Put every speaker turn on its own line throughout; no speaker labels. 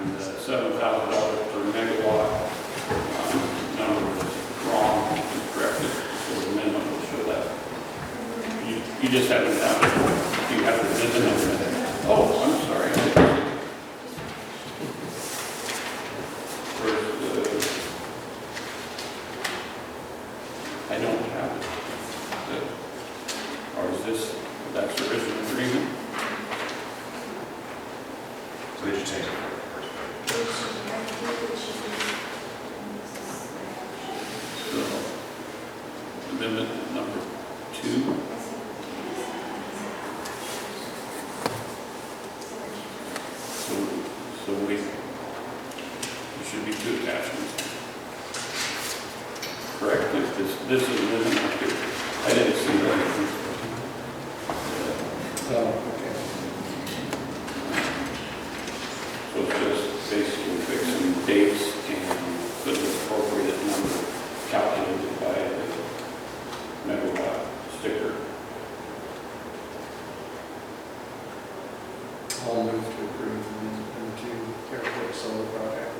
Um, You just haven't done it. You haven't visited it. Oh, I'm sorry. Where's the, uh, I don't have it. The- Or is this, that's the original agreement?
So they just changed it.
So, Amendment number two. So, so we, there should be two attachments. Correct, if this, this is living up here. I didn't see that.
Oh,
So it's just basically fixing dates and put the appropriate number calculated by the megawatt sticker.
I'll move to approve amendment two, airport solar project.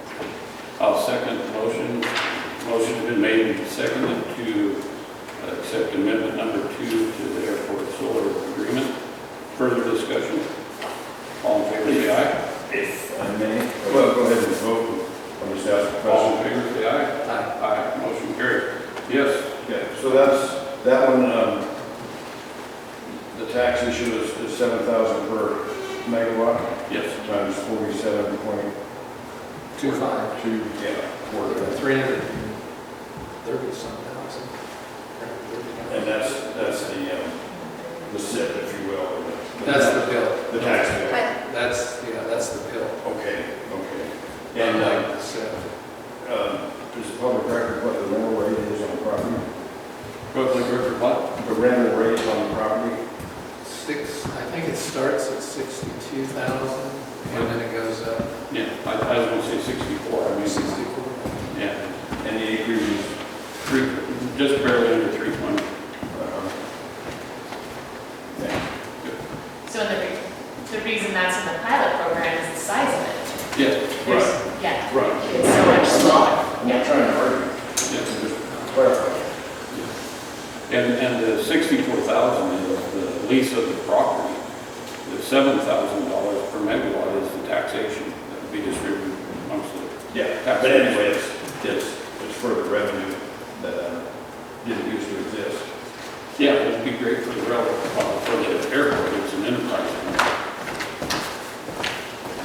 I'll second the motion. Motion's been made and seconded to accept amendment number two to the airport solar agreement. Further discussion? All in favor, say aye.
If I may, well, go ahead and vote, I'm just asking a
All
question.
in favor, say aye. Aye. Motion carried. Yes,
Okay, so that's, that one, um, the tax issue is, is seven thousand per megawatt
yes.
times forty-seven point
Two five.
two, yeah, four.
Three hundred and thirty some thousand.
And that's, that's the, um, the SIP, if you will. or the-
That's the bill,
The tax bill.
But
that's, yeah, that's the bill.
Okay, okay. And, uh,
So,
Um, Is it public record what the rental rate is on the property?
Public record what?
The rental rate on the property?
Six, I think it starts at sixty-two thousand, and then it goes up
Yeah, I, I was gonna say sixty-four, I
to
mean,
sixty-four.
yeah.
And the acreage is?
Three, just barely under three twenty.
Yeah.
So the, re- the reason that's in the pilot program is the size of it.
Yes,
There's-
right,
Yeah,
right.
it's so much smaller.
I'm not trying to argue,
Yes.
just clarify.
And, and the sixty-four thousand is the lease of the property. The seven thousand dollars per megawatt is the taxation that would be distributed amongst the,
Yeah, but anyway, it's, it's, it's for the revenue that uh, didn't used to exist.
yeah, it'd be great for the rail, uh, for the airport, it's an enterprise.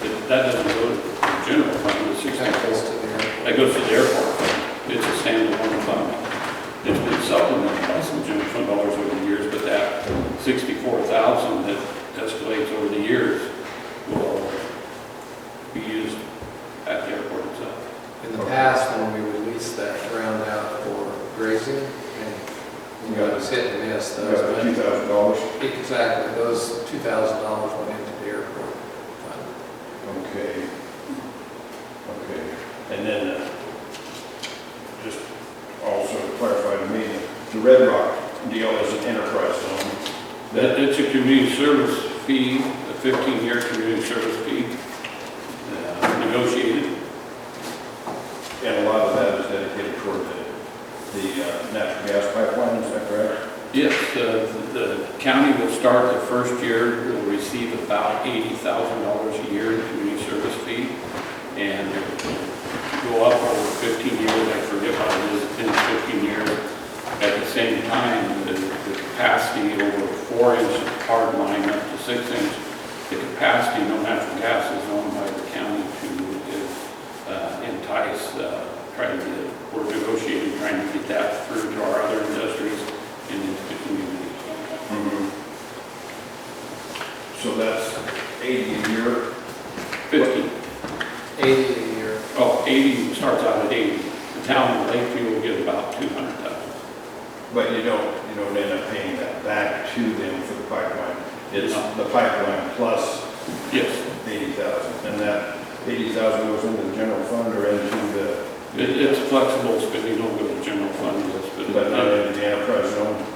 But That doesn't go to the general fund, the
That
sixty-four.
goes to the airport.
That goes to the airport. It's a standalone fund. It's been supplemented by some general fund dollars over the years, but that sixty-four thousand that escalates over the years will be used at the airport itself.
In the past, when we would lease that ground out for grazing, and you know, it was hit and miss,
You got two
those,
thousand dollars?
but exactly, those two thousand dollars went into the airport fund.
Okay. Okay, and then, uh, just also to clarify to me, the Red Rock deal is an enterprise zone.
That, it's a community service fee, a fifteen-year community service fee, uh, negotiated.
And a lot of that is dedicated toward the, the uh, natural gas pipeline, is that correct?
Yes, the, the county will start the first year, will receive about eighty thousand dollars a year in community service fee. And it will go up over fifteen years, I forget what it is, 10, 15 years. At the same time, the, the capacity over four inch hard line up to six inch, the capacity, no natural gas is owned by the county to uh, entice, uh, try to get, we're negotiating, trying to get that through to our other industries in the community.
Mm-hmm. So that's 80 a year,
Fifty,
Eighty a year,
oh, eighty starts out at eighty. The town of Lakeview will get about two hundred thousand.
but you don't, you don't end up paying that back to them for the pipeline. It's
No.
the pipeline plus
Yes,
80,000, and that 80,000 goes into the general fund or into the,
it, it's flexible spending, don't go to the general fund, yes,
but not
but uh,
into the enterprise zone?